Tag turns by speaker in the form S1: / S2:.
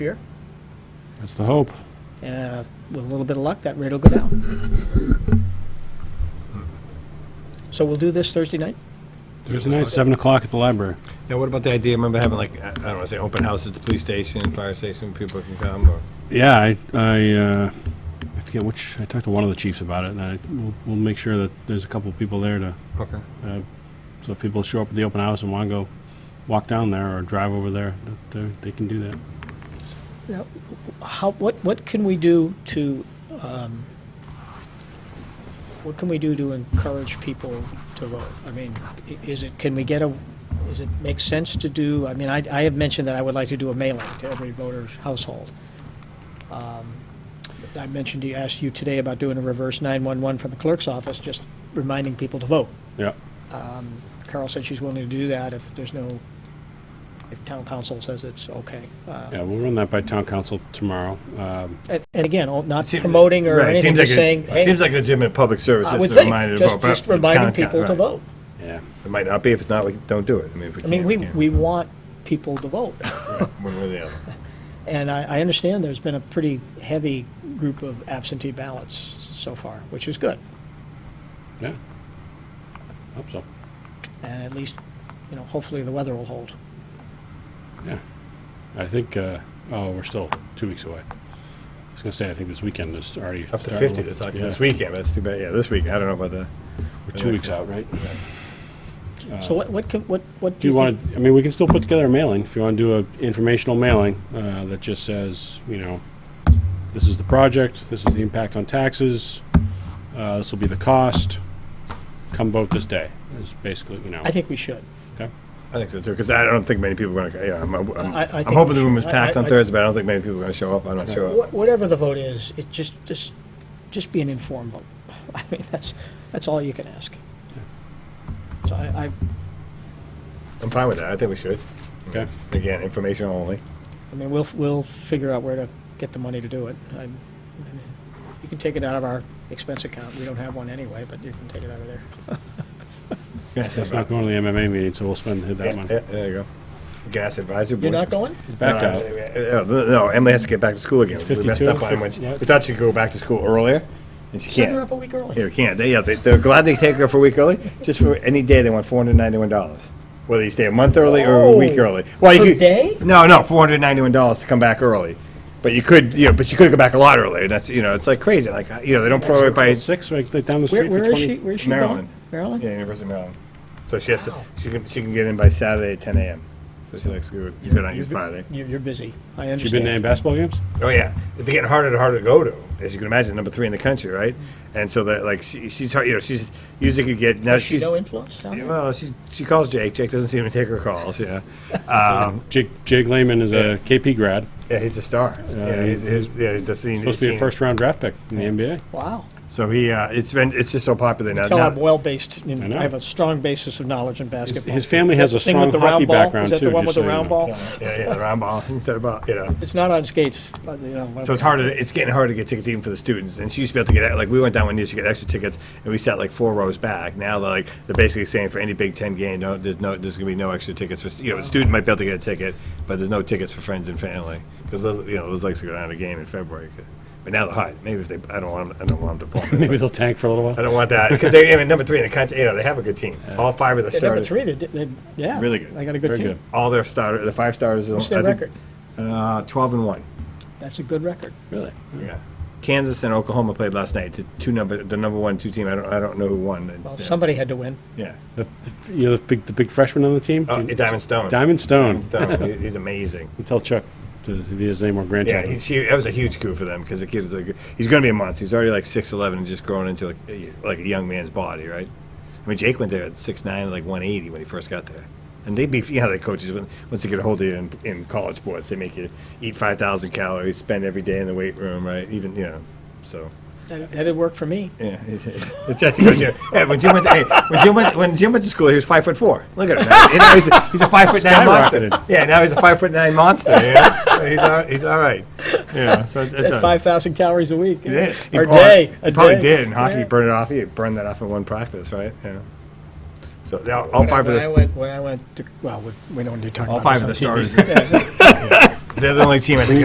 S1: year.
S2: That's the hope.
S1: Uh, With a little bit of luck, that rate will go down. So we'll do this Thursday night?
S2: Thursday night, 7 o'clock at the library.
S3: Now, what about the idea, remember having like, I I don't want to say open house at the police station, fire station, people can come, or,
S2: Yeah, I, I, uh, I forget which, I talked to one of the chiefs about it, and I, we'll, we'll make sure that there's a couple of people there to,
S3: okay.
S2: so if people show up at the open house and want to go walk down there or drive over there, that uh, they can do that.
S1: Now, How, what, what can we do to, um, what can we do to encourage people to vote? I mean, i- is it, can we get a, is it make sense to do, I mean, I, I have mentioned that I would like to do a mailing to every voter's household. Um, I mentioned, you asked you today about doing a reverse 911 from the clerk's office, just reminding people to vote. Um,
S2: Yeah,
S1: Carol said she's willing to do that if there's no, if town council says it's okay. Uh,
S2: yeah, we'll run that by town council tomorrow. Um,
S1: And and again, all- not
S3: Seem-
S1: promoting or
S3: Right, it
S1: anything,
S3: seems like
S1: just
S3: a-
S1: saying, hey,
S3: Seems like legitimate public service,
S1: I would
S3: just a reminder
S1: think,
S3: to
S1: just,
S3: vote, but
S1: just
S3: it's
S1: reminding
S3: kinda ca-
S1: people to
S3: right.
S1: vote.
S2: yeah,
S3: It might not be, if it's not, we don't do it, I mean, if we
S1: I
S3: can
S1: mean, we, we want people to vote.
S3: One way or the other.
S1: And I, I understand there's been a pretty heavy group of absentee ballots so far, which is good.
S2: yeah. Hope so,
S1: And at least, you know, hopefully the weather will hold.
S2: yeah. I think, uh, oh, we're still two weeks away. I was going to say, I think this weekend is already.
S3: Up to
S2: starting.
S3: 50, they're talking
S2: Yeah,
S3: this weekend, that's too bad, yeah, this week, I don't know about the.
S2: We're two weeks out, right?
S1: So what, what, can- what, what
S2: Uh, Do you want to, I mean, we can still put together a mailing, if you want to do a informational mailing, uh, that just says, you know, this is the project, this is the impact on taxes, uh, this will be the cost, come vote this day, is basically, you know.
S1: I think we should.
S2: okay?
S3: I think so too, because I don't think many people are going to, yeah, I'm, I'm,
S1: I- I think
S3: I'm
S1: we
S3: hoping the room is
S1: should. I-
S3: packed
S1: I-
S3: on
S1: I-
S3: Thursday, but I don't think many people are going to show up, I'm not sure.
S1: Wh- Whatever the vote is, it just, just, just be an informed vote. I mean, that's, that's all you can ask. So I, I,
S3: I'm fine with that, I think we should.
S2: Okay.
S3: Again, information only.
S1: I mean, we'll, we'll figure out where to get the money to do it. I- I mean, You can take it out of our expense account, we don't have one anyway, but you can take it out of there.
S2: That's not going to the MMA meeting, so we'll spend that
S3: Yeah,
S2: money.
S3: yeah, There you go. Gas advisory board.
S1: You're not going?
S2: Back
S3: No,
S2: out.
S3: uh, uh, No, Emily has to get back to school again. We messed
S2: 52?
S3: up on when she-
S2: What?
S3: we thought she'd go back to school earlier, and she
S1: Send her
S3: can't.
S1: up a week
S3: Yeah,
S1: early.
S3: we can't. They, yeah, they- they're glad they take her for a week early, just for any day, they want four hundred ninety-one dollars. Whether you stay a month early or a week
S1: Oh.
S3: early. Well, you
S1: Per
S3: could-
S1: day?
S3: No, no, four hundred ninety-one dollars to come back early. But you could, you know, but you could go back a lot earlier, and that's, you know, it's like crazy, like, uh, you know, they don't prorate by
S2: Six, right, like down
S1: Where,
S2: the street for
S1: where is she,
S2: twenty.
S1: where is she going?
S3: Maryland.
S1: Maryland?
S3: Yeah, University of Maryland. So she has to, she can, she can get in by Saturday at ten AM. So she likes to go, go down here Friday.
S1: You're, you're busy, I
S2: She been to any
S1: understand.
S2: basketball games?
S3: Oh yeah, they're getting harder and harder to go to, as you can imagine. Number three in the country, right? And so that like she, she's hard, you know she's usually could get now
S1: Has she
S3: she's
S1: no influence down there?
S3: well she she calls Jake. Jake doesn't seem to take her calls. Yeah, um,
S2: Jake, Jake Lehman is a KP grad,
S3: yeah he's a star. yeah, he's, he's, yeah, he's the senior.
S2: supposed to be a
S3: senior.
S2: first round draft pick in the NBA.
S1: Wow.
S3: So he uh, it's been it's just so popular now.
S1: Tell
S3: Now-
S1: I'm well-based, in-
S2: Uh, I know.
S1: I have a strong basis of knowledge in basketball.
S2: his family
S1: Is that
S2: has a
S1: the thing
S2: strong
S1: with the round
S2: hockey
S1: ball?
S2: background,
S1: Is that
S2: too,
S1: the one with
S2: just
S1: the
S2: so you
S1: round
S2: know.
S1: ball?
S3: yeah, yeah, the round ball instead of ball, you know.
S1: It's not on skates, but, you know.
S3: So it's harder. It's getting harder to get tickets even for the students. And she used to be able to get like we went down one year to get extra tickets, and we sat like four rows back. Now they're like they're basically saying for any Big Ten game, no, there's no, there's gonna be no extra tickets for stu- you know, the student might be able to get a ticket, but there's no tickets for friends and family because those you know those likes to go down to a game in February. But now they're hot. Maybe if they, I don't want, 'em- I don't want them to plummet.
S2: Maybe they'll tank for a little
S3: I
S2: while.
S3: don't want that because they're I mean, number three in the country. You know, they have a good team. All five of their
S1: At number
S3: starters.
S1: three, they, did- they, yeah.
S3: Really good.
S1: They got a
S2: Very
S1: good
S2: good.
S1: team.
S3: All their starter, the five starters.
S1: What's their
S3: I think,
S1: record?
S3: Uh, Twelve and one.
S1: That's a good record.
S2: Really?
S3: Yeah. Kansas and Oklahoma played last night. The two number, the number one two team. I don't, I don't know who won. It's,
S1: Well,
S3: uh,
S1: somebody had to win.
S3: yeah.
S2: The, the- you know, the big, the big freshman on the team?
S3: Oh, Diamond Stone.
S2: Diamond Stone.
S3: Stone. he- he's amazing.
S2: Tell Chuck to, if he has any more
S3: Yeah,
S2: grandchildren.
S3: he's huge. That was a huge coup for them because the kid's like, he's going to be a monster. He's already like six eleven and just growing into like, a- like a young man's body, right? I mean, Jake went there at six nine, like one eighty when he first got there. And they beef. You know how the coaches when once they get a hold of you in, in college sports, they make you eat five thousand calories, spend every day in the weight room, right? Even you know, so.
S1: That, that'd work for me.
S3: Yeah, it's just because you- yeah, when Jim went, hey, when Jim went, when Jim went to school, he was five foot four. Look at him. Now, you know, he's, a, he's a five foot nine monster.
S2: Skyrocketed.
S3: Yeah, now he's a five foot nine monster. Yeah, So he's all, he's all right. Yeah, so it's, it's
S1: At
S3: a-
S1: 5,000 calories a week.
S3: it is. He
S1: Or
S3: probably-
S1: day.
S3: He
S1: a
S3: probably
S1: day.
S3: did in hockey.
S1: Yeah.
S3: He burned it off. He burned that off in one practice, right? Yeah. So they all, all five of
S1: when I
S3: the
S1: went, when I went to, well, we, we don't need to talk
S3: all
S1: about
S3: five
S1: this
S3: of the
S1: on TV.
S3: stars. They're the only team I think